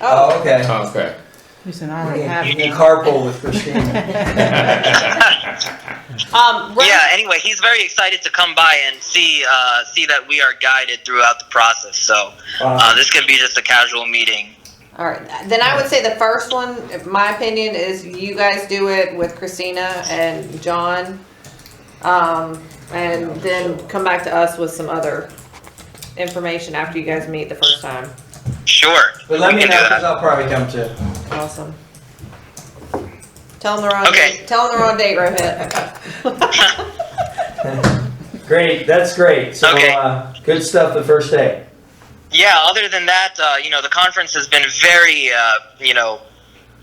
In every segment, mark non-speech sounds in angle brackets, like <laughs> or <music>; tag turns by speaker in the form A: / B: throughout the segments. A: Oh, okay.
B: Okay.
C: You said I
A: You
C: already have
A: can, you can
C: them.
A: carpool with Christine.
C: <laughs>
D: <laughs>
E: Um, Ren,
D: Yeah. Anyway, he's very excited to come by and see uh, see that we are guided throughout the process. So uh,
A: Uh,
D: this can be just a casual meeting.
E: All right. Then I would say the first one, my opinion is you guys do it with Christina and John. Um, and then come back to us with some other information after you guys meet the first time.
D: Sure.
A: but let
D: we
A: me know
D: can do that.
A: because I'll probably come too.
E: Awesome. Tell them the wrong
D: Okay.
E: date. Tell them the wrong date, Rohit.
A: Great, that's great. So
D: Okay.
A: uh, good stuff the first day.
D: Yeah. Other than that, uh, you know, the conference has been very, uh, you know,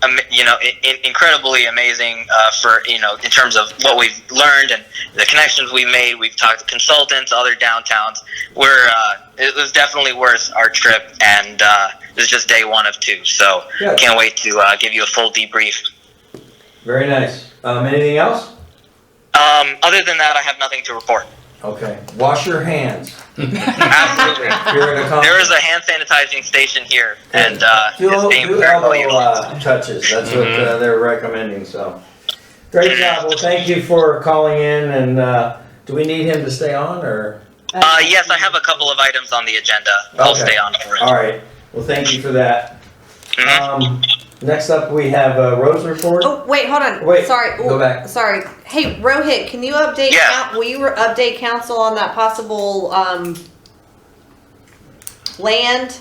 D: um, you know, in, in- incredibly amazing uh, for you know, in terms of what we've learned and the connections we made. We've talked to consultants, other downtowns. We're uh, it was definitely worth our trip, and uh, this is just day one of two. So
A: Good.
D: can't wait to uh, give you a full debrief.
A: Very nice. Um, anything else?
D: Um, other than that, I have nothing to report.
A: Okay. Wash your hands.
D: Absolutely.
A: You're at a
D: There
A: <laughs>
D: is
A: conference.
D: a hand sanitizing station here, and uh,
A: do,
D: it's being
A: do
D: very well
A: elbow
D: utilized.
A: uh, touches. That's what
D: Mm-hmm.
B: Mhm.
A: uh, they're recommending. So great job. Well, thank you for calling in. And uh, do we need him to stay on or?
D: <laughs> Uh, yes, I have a couple of items on the agenda. I'll
A: Okay.
D: stay on for it.
A: All right. Well, thank you for that.
D: Mhm.
A: Um, next up, we have uh, Rose report.
E: oh, wait, hold on.
A: Wait,
E: Sorry.
A: go back.
E: Sorry. Hey, Rohit, can you update?
D: Yeah.
E: coun- will you re- update council on that possible um, land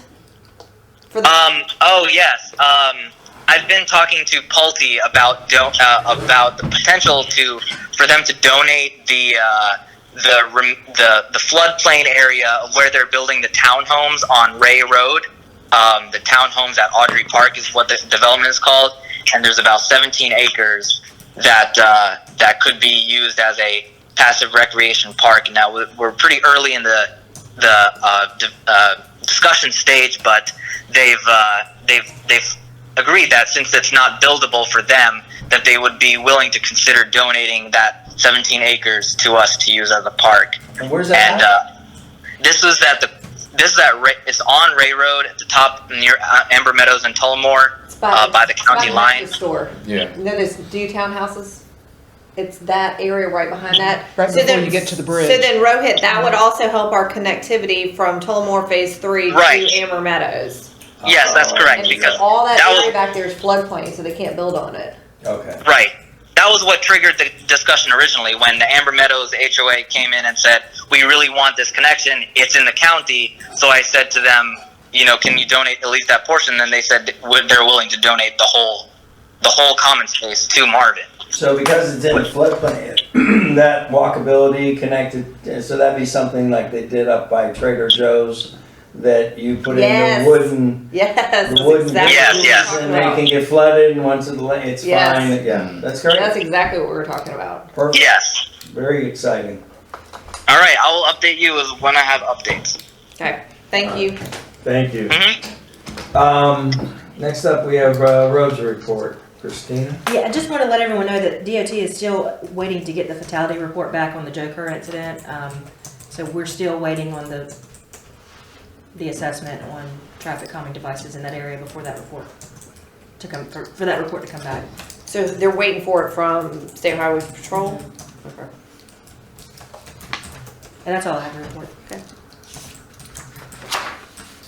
E: for the?
D: Um, oh yes. Um, I've been talking to Pulte about do- uh, about the potential to for them to donate the uh, the rem- the the floodplain area of where they're building the townhomes on Ray Road. Um, the townhomes at Audrey Park is what the development is called, and there's about 17 acres that uh, that could be used as a passive recreation park. Now we're- we're pretty early in the the uh, di- uh, discussion stage, but they've uh, they've they've agreed that since it's not buildable for them, that they would be willing to consider donating that 17 acres to us to use as a park.
A: And where's that?
D: And
A: at?
D: uh, this is at the this is at Ra- it's on Ray Road at the top near uh, Amber Meadows and Tullamore
E: It's by-
D: uh, by the
E: by
D: county
E: the
D: line.
E: Store.
B: Yeah.
E: You know those do townhouses? It's that area right behind that.
C: Right
E: So
C: before
E: then-
C: you get to the bridge.
E: So then Rohit, that would also help our connectivity from Tullamore Phase Three
D: Right.
E: to Amber Meadows.
D: Yes, that's
A: Uh,
D: correct,
E: And so
D: because
E: All that
D: that
E: area
D: was-
E: back there is floodplain, so they can't build on it. <laughs>
A: Okay.
D: Right. That was what triggered the discussion originally when the Amber Meadows HOA came in and said, We really want this connection. It's in the county. So I said to them, You know, can you donate at least that portion? And they said would- they're willing to donate the whole the whole common space to Marvin.
A: So because it's in the floodplain, <clears throat> that walkability connected, eh, so that'd be something like they did up by Trader Joe's that you put in
E: Yes.
A: the wooden,
E: Yes,
A: the
E: that's
A: wooden
E: exactly
D: Yes,
E: what we were
A: pieces
D: yes.
E: talking
A: and they can
E: about.
A: get flooded and once it, la- it's
E: Yes.
A: fine. Yeah, that's
E: That's
A: great.
E: exactly what we were talking about.
A: Perfect.
D: Yes.
A: Very exciting.
D: All right. I will update you as when I have updates.
E: Okay, thank you.
A: Thank you.
D: hmm
A: Um, next up, we have uh, Rose report. Christina?
F: Yeah, I just want to let everyone know that DOT is still waiting to get the fatality report back on the Joe Kerr incident. Um, So we're still waiting on the, the assessment on traffic calming devices in that area before that report to come, for for that report to come back.
E: So they're waiting for it from State Highway Patrol? Okay.
F: And that's all I have to report.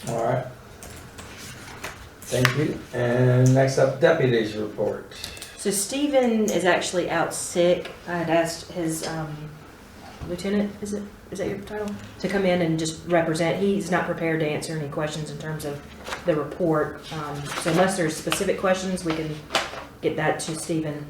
A: All right. Thank you. And next up, deputies report.
F: So Stephen is actually out sick. I had asked his um, lieutenant, is it, is that your title? To come in and just represent. He's not prepared to answer any questions in terms of the report. Um, So unless there's specific questions, we can get that to Stephen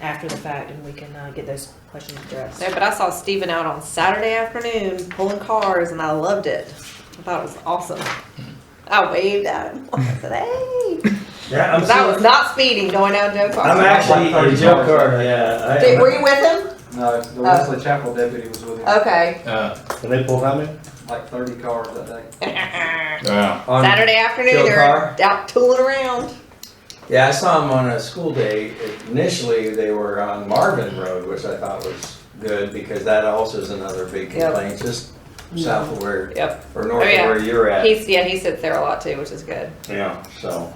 F: after the fact and we can uh, get those questions addressed.
E: No, but I saw Steven out on Saturday afternoon pulling cars and I loved it. I thought it was awesome.
A: Hmm.
E: I waved at him. I said,
A: <laughs>
E: hey.
A: Yeah, I'm
E: 'Cause I
A: still-
E: was not speeding going down Joe Carter.
A: I'm actually
G: Like
A: in Joe Carter,
E: Did, were
A: yeah.
E: you with him?
G: No, the Wesley Chapel deputy was with
E: Oh.
G: him,
E: Okay.
B: Uh,
H: Can they pull time in?
G: like thirty cars that day.
E: Saturday
B: wow.
A: On- Joe
E: afternoon,
A: Carr?
E: they're out tooling around.
A: Yeah, I saw him on a school day. Initially, they were on Marvin Road, which I thought was good because that also is another big
E: Yep.
A: complaint, just south of where,
E: Yep.
A: or north
E: Oh,
A: of
E: yeah.
A: where you're at.
E: He's, yeah, he sits there a lot too, which is good.
A: Yeah, so.